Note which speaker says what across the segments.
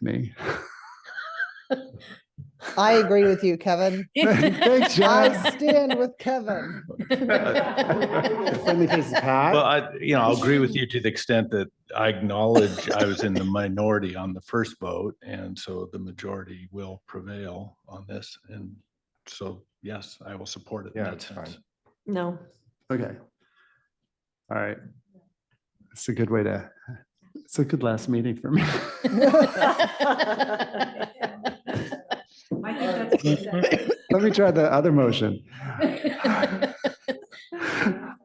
Speaker 1: me.
Speaker 2: I agree with you, Kevin.
Speaker 1: Thanks, John.
Speaker 2: I stand with Kevin.
Speaker 3: Friendly faces hat.
Speaker 4: Well, I, you know, I'll agree with you to the extent that I acknowledge I was in the minority on the first vote, and so the majority will prevail on this. And so, yes, I will support it. in
Speaker 3: Yeah,
Speaker 4: that
Speaker 3: it's fine.
Speaker 4: sense.
Speaker 5: No.
Speaker 1: Okay. All right. It's a good way to, it's a good last meeting for me.
Speaker 6: I think that's what that is.
Speaker 1: Let me try the other motion.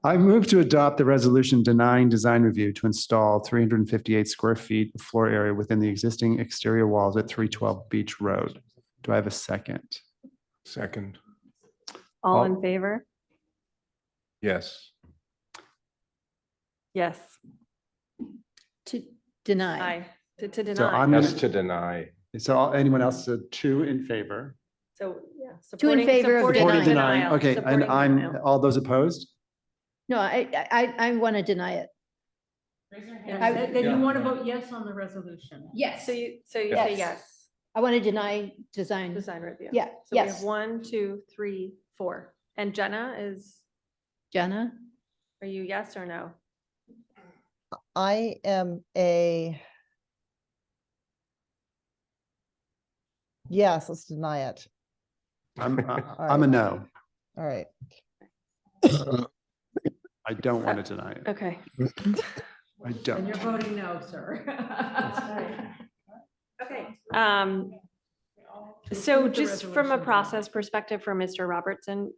Speaker 1: I move to adopt the resolution denying design review to install 358 square feet of floor area within the existing exterior walls at 312 Beach Road. Do I have a second?
Speaker 3: Second,
Speaker 5: All in favor?
Speaker 3: yes.
Speaker 5: Yes.
Speaker 7: To deny.
Speaker 6: Aye, to, to
Speaker 1: So
Speaker 6: deny.
Speaker 1: I'm,
Speaker 3: Yes,
Speaker 1: gonna-
Speaker 3: to deny.
Speaker 1: so all- anyone else, uh, two in favor?
Speaker 6: So, yeah.
Speaker 7: Two in
Speaker 6: supporting-
Speaker 7: favor of
Speaker 6: supporting
Speaker 7: Supporting
Speaker 1: Supported
Speaker 7: denial.
Speaker 1: denying, okay, and
Speaker 6: supporting
Speaker 1: I'm,
Speaker 6: denial.
Speaker 1: all those opposed?
Speaker 7: No, I, I- I, I want to deny it.
Speaker 6: Yeah,
Speaker 7: I-
Speaker 6: Then then you
Speaker 4: Yeah.
Speaker 6: want to vote yes on the resolution?
Speaker 7: Yes.
Speaker 6: So you, so you say
Speaker 7: Yes.
Speaker 6: yes,
Speaker 7: I want to deny design.
Speaker 6: design review.
Speaker 7: Yeah,
Speaker 6: So we have
Speaker 7: yes.
Speaker 6: one, two, three, four. And Jenna is,
Speaker 7: Jenna?
Speaker 6: are you yes or no?
Speaker 2: I am a yes, let's deny it.
Speaker 1: I'm, I- I'm a no.
Speaker 2: All right.
Speaker 1: I don't want to deny it.
Speaker 6: Okay.
Speaker 1: I don't.
Speaker 6: voting no, sir. Okay, um, so just from a process perspective for Mr. Robertson,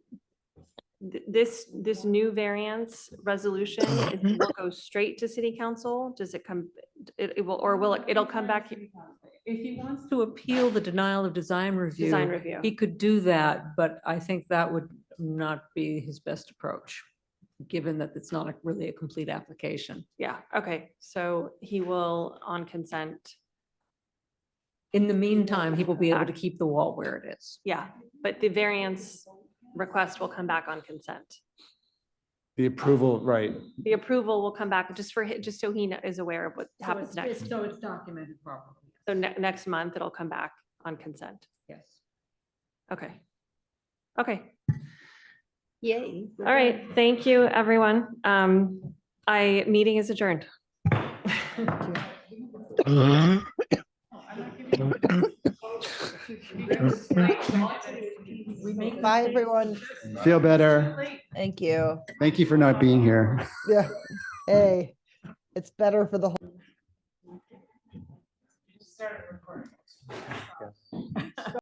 Speaker 6: th- this, this new variance resolution it will go straight to city council? Does it come, it, it will, or will it, it'll come back here?
Speaker 8: If he wants to appeal the denial of design
Speaker 6: design
Speaker 8: review,
Speaker 6: review?
Speaker 8: he could do that, but I think that would not be his best approach, given that it's not a- really a complete application.
Speaker 6: Yeah, okay, so he will on consent,
Speaker 8: In the meantime, he will be able to keep the wall where it is.
Speaker 6: yeah, but the variance request will come back on consent.
Speaker 1: The approval, right.
Speaker 6: The approval will come back just for, hi- just so he kno- is aware of what happens next.
Speaker 8: So it's documented properly.
Speaker 6: So ne- next month, it'll come back on consent.
Speaker 8: Yes.
Speaker 6: Okay. Okay,
Speaker 7: Yay.
Speaker 6: all right. Thank you, everyone. Um, I, meeting is adjourned.
Speaker 2: Bye, everyone.
Speaker 1: Feel better.
Speaker 2: Thank you.
Speaker 1: Thank you for not being here.
Speaker 2: Yeah. Hey, it's better for the whole.